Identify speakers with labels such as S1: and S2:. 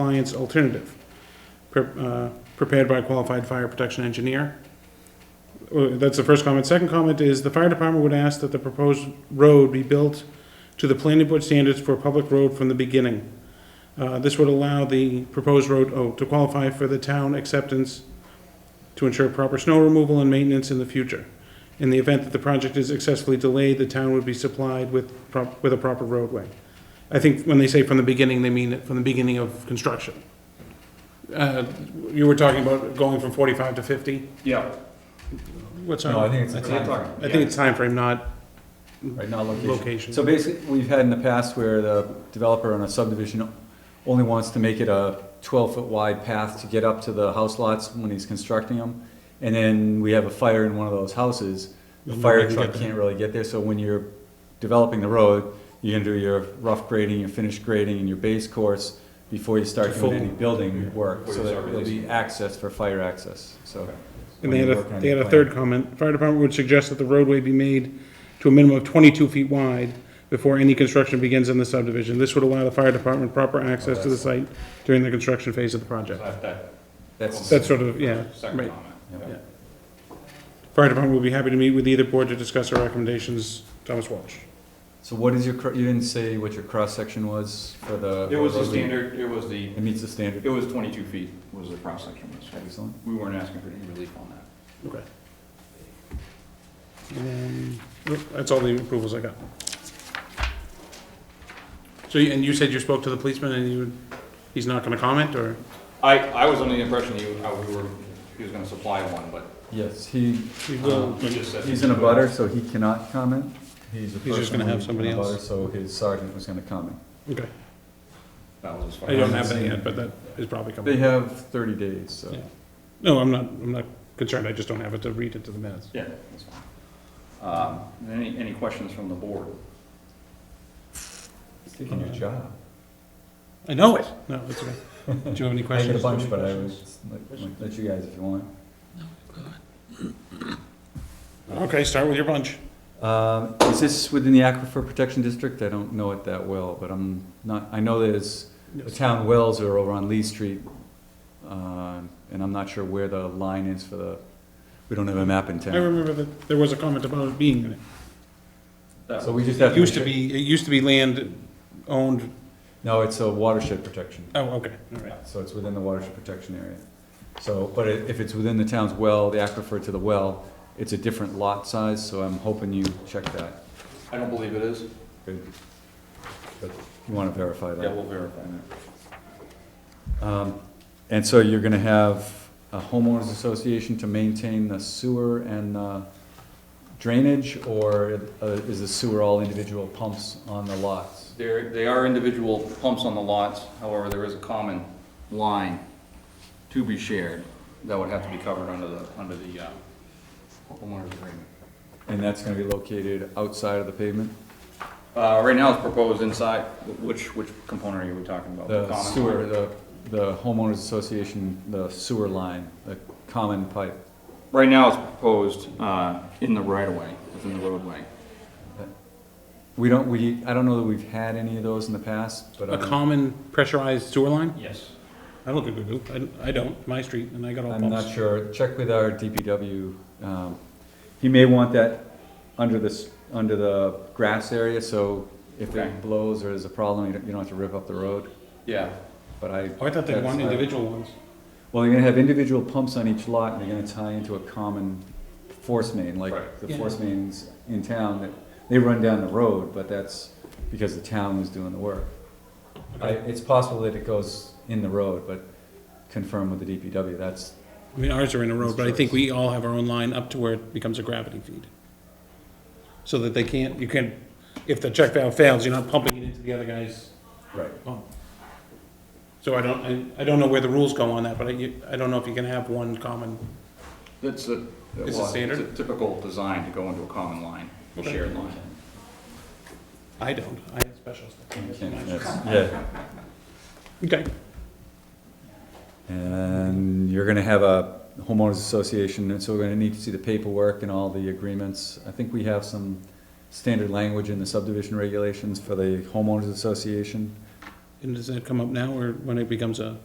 S1: compliance alternative, pre- uh, prepared by a qualified fire protection engineer. Uh, That's the first comment. Second comment is, the fire department would ask that the proposed road be built to the planning board standards for a public road from the beginning. Uh, This would allow the proposed road, oh, to qualify for the town acceptance to ensure proper snow removal and maintenance in the future. In the event that the project is successfully delayed, the town would be supplied with, prop- with a proper roadway. I think when they say from the beginning, they mean it from the beginning of construction. Uh, You were talking about going from 45 to 50?
S2: Yeah.
S1: What's
S3: No, I
S1: our,
S3: think it's a
S2: That's what I'm
S3: time,
S2: talking.
S1: I think it's time frame, not
S3: right, not location.
S1: location.
S3: So basically, we've had in the past where the developer on a subdivision only wants to make it a twelve-foot wide path to get up to the house lots when he's constructing them. And then we have a fire in one of those houses, the
S1: Nobody
S3: fire
S1: can
S3: truck
S1: get there.
S3: can't really get there, so when you're developing the road, you're gonna do your rough grading, your finished grading, and your base course before you start
S1: To
S3: doing
S1: full-
S3: any building work, so
S2: Before you
S3: that
S2: start
S3: there'll be
S2: releasing.
S3: access for fire access, so.
S1: And they had
S3: when
S1: a,
S3: you work on
S1: they had
S3: your
S1: a
S3: plan.
S1: third comment, fire department would suggest that the roadway be made to a minimum of twenty-two feet wide before any construction begins in the subdivision. This would allow the fire department proper access to the site during the construction phase of the project.
S2: That, that
S3: That's.
S1: That's sort of, yeah,
S2: second
S1: right.
S2: comment.
S3: Yeah.
S2: Yeah.
S1: Fire department will be happy to meet with either board to discuss our recommendations, Thomas Walsh.
S3: So what is your, cr- you didn't say what your cross-section was for the?
S2: It was the
S3: road?
S2: standard, it was the,
S3: It meets the
S2: it
S3: standard,
S2: was twenty-two feet was the cross section.
S3: excellent.
S2: We weren't asking for any relief on that.
S1: Okay. And then, oh, that's all the approvals I got. So, you- and you said you spoke to the policeman and you, he's not gonna comment, or?
S2: I, I was under the impression you, how we were, he was gonna supply one, but um,
S3: Yes, he,
S1: He will.
S2: he just said.
S3: he's in a butter, so he cannot comment. He's a
S1: He's just
S3: person
S1: gonna have
S3: who's in
S1: somebody
S3: a
S1: else.
S3: butter, So his sergeant was gonna comment.
S1: Okay,
S2: That was as far
S1: I don't
S2: as-
S1: have any yet, but that is probably
S3: They
S1: coming.
S3: have thirty days, so.
S1: Yeah. No, I'm not, I'm not concerned, I just don't have it to read into the minutes.
S2: Yeah, that's fine. Um, any, any questions from the board?
S3: He's taking your job.
S1: I know it. No, that's okay. Do you have any
S3: I get a
S1: questions?
S3: bunch, but I was, like, let you guys if you want.
S1: Okay, start with your bunch.
S3: Um, Is this within the Aquifer Protection District? I don't know it that well, but I'm not, I know there's, the town wells are over on Lee Street, um, and I'm not sure where the line is for the, we don't have a map in
S1: I
S3: town.
S1: remember that there was a comment about it being in it.
S2: That-
S3: So we just have
S1: It
S3: to.
S1: used to
S3: make sure-
S1: be, it used to be land owned,
S3: No, it's a watershed protection,
S1: oh, okay, all right.
S3: so it's within the watershed protection area. So, but i- if it's within the town's well, the aquifer to the well, it's a different lot size, so I'm hoping you check that.
S2: I don't believe it is.
S3: Good. But You wanna verify that?
S2: Yeah, we'll verify that.
S3: Um, And so you're gonna have a homeowners association to maintain the sewer and uh, drainage, or uh, is the sewer all individual pumps on the lots?
S2: There, they are individual pumps on the lots, however, there is a common line to be shared that would have to be covered under the, under the, uh, homeowner's agreement.
S3: And that's gonna be located outside of the pavement?
S2: Uh, right now it's proposed inside, which, which component are we talking about?
S3: The
S2: common
S3: sewer,
S2: line?
S3: the, the homeowners association, the sewer line, the common pipe.
S2: Right now it's proposed, uh, in the right of way, within the roadway.
S3: We don't, we, I don't know that we've had any of those in the past, but um,
S1: A
S3: I'm,
S1: common pressurized sewer line?
S2: Yes.
S1: I don't think we do. I, I don't, my street, and I got all
S3: I'm not
S1: pumps.
S3: sure. Check with our DPW. um, He may want that under this, under the grass area, so if
S2: Okay.
S3: it blows or there's a problem, you don't, you don't have to rip up the road,
S2: Yeah,
S3: but I.
S1: Oh, I thought they
S3: that's-
S1: wanted individual ones.
S3: Well, you're gonna have individual pumps on each lot, and they're gonna tie into a common force main, like
S2: Right.
S3: the
S1: Yeah.
S3: force mains in town, that, they run down the road, but that's because the town was doing the work. I,
S1: Okay.
S3: it's possible that it goes in the road, but confirm with the DPW, that's,
S1: I mean, ours are in a road,
S3: It's
S1: but I think
S3: choice.
S1: we all have our own line up to where it becomes a gravity feed. So that they can't, you can't, if the check valve fails, you're not pumping it into the other guy's
S3: right.
S1: pump. So I don't, I, I don't know where the rules go on that, but I, you- I don't know if you can have one common,
S2: that's a.
S1: it
S2: well,
S1: standard?
S2: a Typical design to go into a common line, a
S1: Okay.
S2: shared line.
S1: I don't, I have special
S3: You
S1: stuff.
S3: can't- that's- Yeah.
S1: Okay,
S3: And you're gonna have a homeowners association, and so we're gonna need to see the paperwork and all the agreements. I think we have some standard language in the subdivision regulations for the homeowners association.
S1: And does that come up now, or when it becomes a?